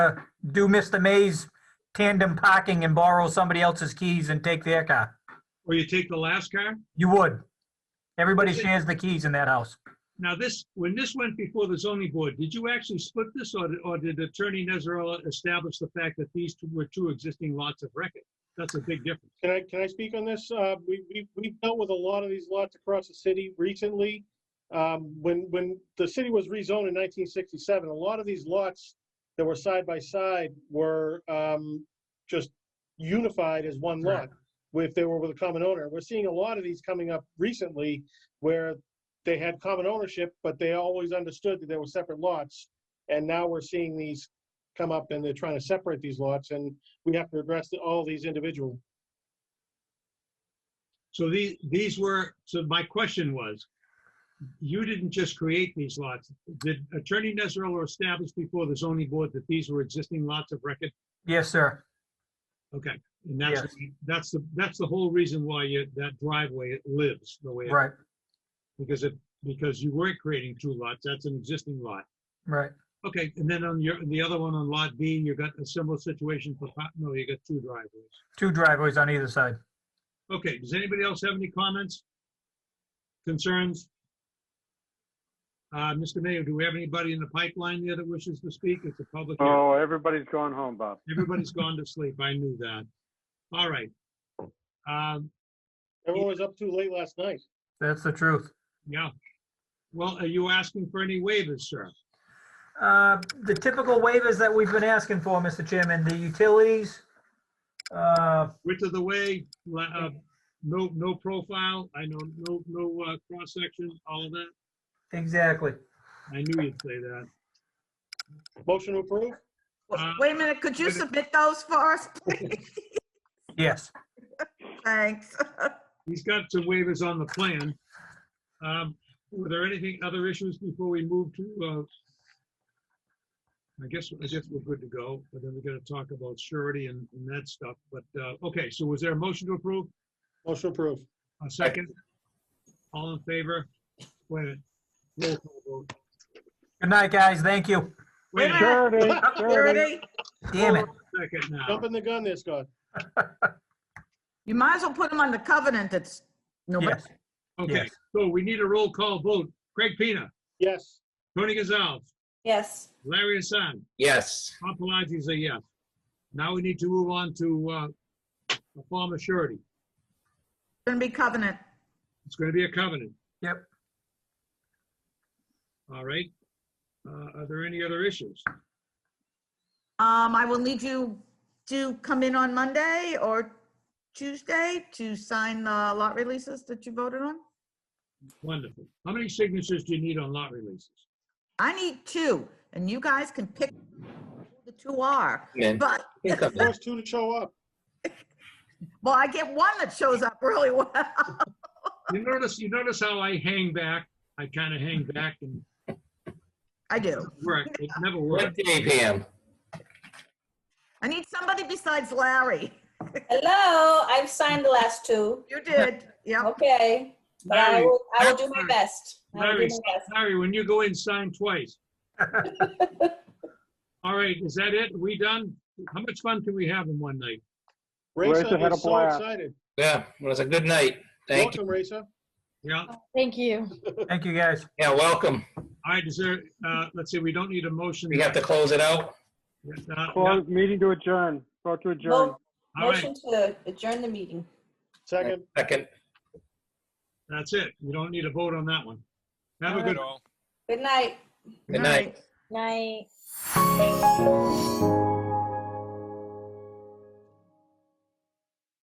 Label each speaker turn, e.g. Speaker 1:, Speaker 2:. Speaker 1: do Mr. May's tandem parking and borrow somebody else's keys and take their car.
Speaker 2: Or you take the last car?
Speaker 1: You would. Everybody shares the keys in that house.
Speaker 2: Now, this, when this went before the zoning board, did you actually split this or, or did Attorney Nezarella establish the fact that these two were two existing lots of record? That's a big difference.
Speaker 3: Can I, can I speak on this? Uh, we, we, we've dealt with a lot of these lots across the city recently. Um, when, when the city was rezoned in nineteen sixty-seven, a lot of these lots that were side by side were, um, just unified as one lot if they were with a common owner. We're seeing a lot of these coming up recently where they had common ownership, but they always understood that they were separate lots. And now we're seeing these come up and they're trying to separate these lots and we have to address the- all these individual.
Speaker 2: So these, these were, so my question was, you didn't just create these lots. Did Attorney Nezarella establish before the zoning board that these were existing lots of record?
Speaker 1: Yes, sir.
Speaker 2: Okay, and that's, that's the, that's the whole reason why you, that driveway lives the way, it-
Speaker 1: Right,
Speaker 2: because it, because you weren't creating two lots, that's an existing lot.
Speaker 1: right.
Speaker 2: Okay, and then on your, the other one on Lot B, you got a similar situation for, pa- no, you got two driveways.
Speaker 1: Two driveways on either side.
Speaker 2: Okay, does anybody else have any comments? Concerns? Uh, Mr. Mayor, do we have anybody in the pipeline there that wishes to speak? It's a public hearing.
Speaker 4: Oh, everybody's gone home, Bob.
Speaker 2: Everybody's gone to sleep, I knew that. All right. Um,
Speaker 3: Everyone was up too late last night.
Speaker 1: That's the truth.
Speaker 2: Yeah. Well, are you asking for any waivers, sir?
Speaker 1: Uh, The typical waivers that we've been asking for, Mr. Chairman, the utilities, uh,
Speaker 2: Width of the way, la- uh, no, no profile, I know, no, no uh, cross-section, all of that?
Speaker 1: exactly.
Speaker 2: I knew you'd say that.
Speaker 3: Motion to approve?
Speaker 2: Uh,
Speaker 5: Wait a minute, could you
Speaker 2: wait a-
Speaker 5: submit those for us, please?
Speaker 1: Yes,
Speaker 5: Thanks.
Speaker 2: He's got some waivers on the plan. Um, Were there anything, other issues before we move to, uh, I guess, I guess we're good to go, but then we're gonna talk about surety and and that stuff, but, uh, okay, so was there a motion to approve?
Speaker 3: Motion to approve.
Speaker 2: A second? All in favor? Wait a minute. Roll call vote.
Speaker 1: good night, guys, thank you.
Speaker 2: Wait a minute.
Speaker 4: Surety, surety.
Speaker 5: Security,
Speaker 1: Damn it,
Speaker 2: Second now.
Speaker 3: Jumping the gun there, Scott.
Speaker 5: You might as well put them on the covenant that's, no,
Speaker 1: yes,
Speaker 2: Okay,
Speaker 1: Yes.
Speaker 2: so we need a roll call vote. Craig Pina,
Speaker 3: Yes.
Speaker 2: Tony Gonzalez,
Speaker 6: Yes.
Speaker 2: Larry Hassan,
Speaker 7: Yes,
Speaker 2: Tom Pelagi is a yes. Now we need to move on to uh, a form of surety.
Speaker 5: it's gonna be covenant.
Speaker 2: It's going to be a covenant,
Speaker 1: yep.
Speaker 2: all right? Uh, Are there any other issues?
Speaker 5: Um, I will need you to come in on Monday or Tuesday to sign the lot releases that you voted on.
Speaker 2: Wonderful. How many signatures do you need on lot releases?
Speaker 5: I need two, and you guys can pick who the two are,
Speaker 7: man.
Speaker 5: but,
Speaker 7: You can come in.
Speaker 3: First two to show up.
Speaker 5: well, I get one that shows up really well.
Speaker 2: You notice, you notice how I hang back? I kind of hang back and
Speaker 5: I do.
Speaker 2: work. It never
Speaker 7: One
Speaker 2: works.
Speaker 7: day PM.
Speaker 5: I need somebody besides Larry.
Speaker 6: Hello, I've signed the last two.
Speaker 5: You did, yep.
Speaker 6: Okay. But I
Speaker 2: Larry,
Speaker 6: will, I will do my
Speaker 2: Larry,
Speaker 6: best. I will do
Speaker 2: Larry,
Speaker 6: my best.
Speaker 2: Larry, when you go in, sign twice. All right, is that it? We done? How much fun can we have in one night?
Speaker 4: Raisa
Speaker 3: Raisa
Speaker 4: had a
Speaker 3: is so
Speaker 4: blast.
Speaker 3: excited.
Speaker 7: Yeah, well, it's a good night. Thank you.
Speaker 3: Welcome, Raisa.
Speaker 2: Yeah,
Speaker 8: Thank you.
Speaker 1: Thank you, guys.
Speaker 7: Yeah, welcome.
Speaker 2: all right, is there, uh, let's see, we don't need a motion.
Speaker 7: We have to close it out.
Speaker 2: Uh, no,
Speaker 4: Close meeting to adjourn. Vote to adjourn.
Speaker 6: Vote.
Speaker 2: All right,
Speaker 6: Motion to adjourn the meeting.
Speaker 3: Second.
Speaker 7: Second.
Speaker 2: that's it. We don't need a vote on that one. Have a good
Speaker 6: Good night.
Speaker 7: Good night.
Speaker 8: Night.